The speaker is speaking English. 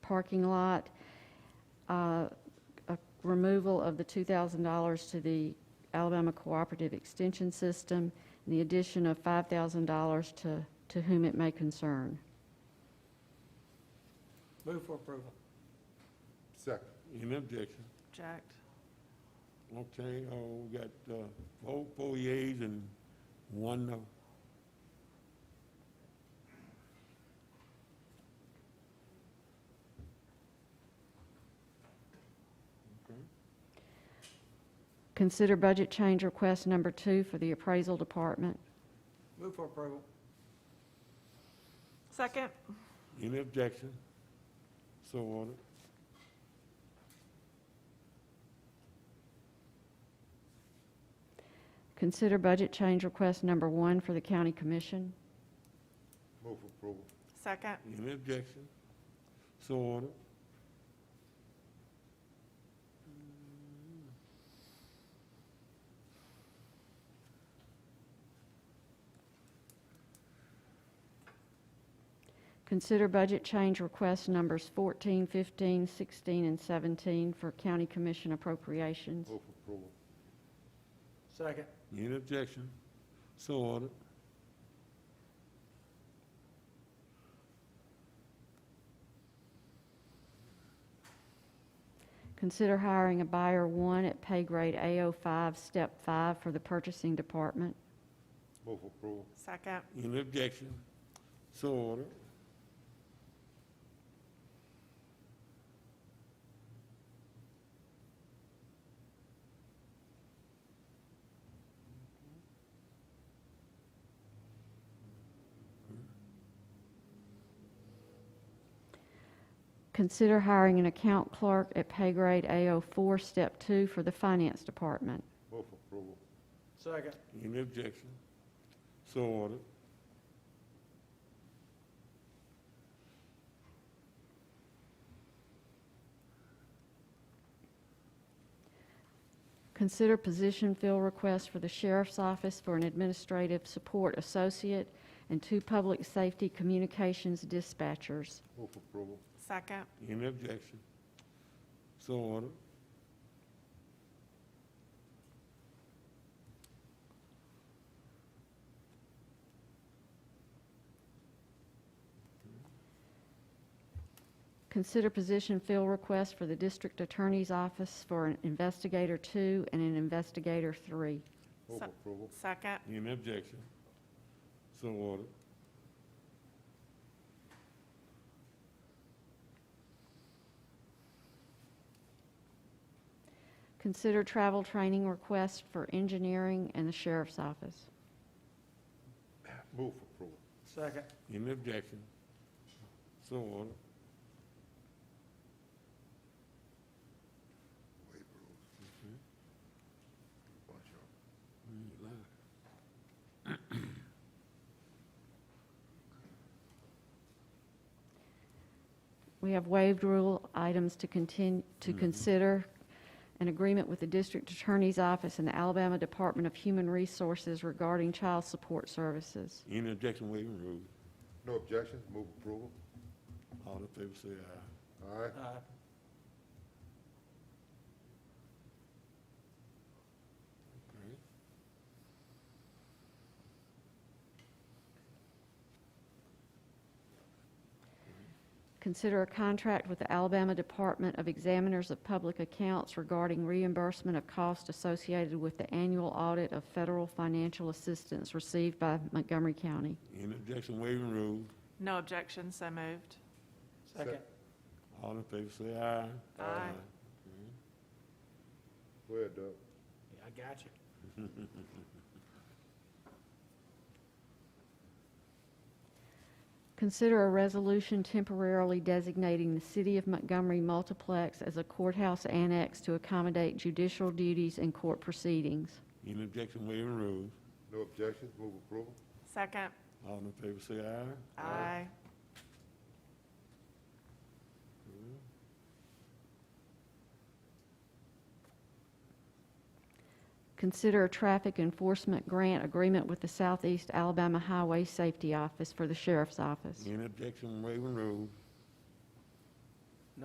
parking lot, uh, a removal of the $2,000 to the Alabama Cooperative Extension System, and the addition of $5,000 to to whom it may concern. Move for approval. Second. Any objection? Jacked. Okay, uh, we got, uh, four, four yeas and one no. Consider budget change request number two for the appraisal department. Move for approval. Second. Any objection? So ordered. Consider budget change request number one for the county commission. Move for approval. Second. Any objection? So ordered. Consider budget change request numbers 14, 15, 16, and 17 for county commission appropriations. Move for approval. Second. Any objection? So ordered. Consider hiring a buyer one at pay grade AO5, step five for the purchasing department. Move for approval. Second. Any objection? So ordered. Consider hiring an account clerk at pay grade AO4, step two for the finance department. Move for approval. Second. Any objection? So ordered. Consider position fill requests for the sheriff's office for an administrative support associate and two public safety communications dispatchers. Move for approval. Second. Any objection? So ordered. Consider position fill request for the district attorney's office for an investigator two and an investigator three. Move for Se- approval. Second. Any objection? So ordered. Consider travel training request for engineering and the sheriff's office. Move for approval. Second. Any objection? So ordered. Waive rules. Bunch of- We have waived rule items to continue, to consider an agreement with the district attorney's office and the Alabama Department of Human Resources regarding child support services. Any objection waiving rules? No objections. Move approval. All in favor say aye. All right. Aye. Okay. Consider a contract with the Alabama Department of Examiners of Public Accounts regarding reimbursement of costs associated with the annual audit of federal financial assistance received by Montgomery County. Any objection waiving rules? No objection, so moved. Second. All in favor say aye. Aye. Okay. Go ahead, Doug. I got you. Consider a resolution temporarily designating the City of Montgomery Multiplex as a courthouse annex to accommodate judicial duties and court proceedings. Any objection waiving rules? No objections. Move approval. Second. All in favor say aye. Aye. Consider a traffic enforcement grant agreement with the Southeast Alabama Highway Safety Office for the Sheriff's Office. Any objection waiving rules?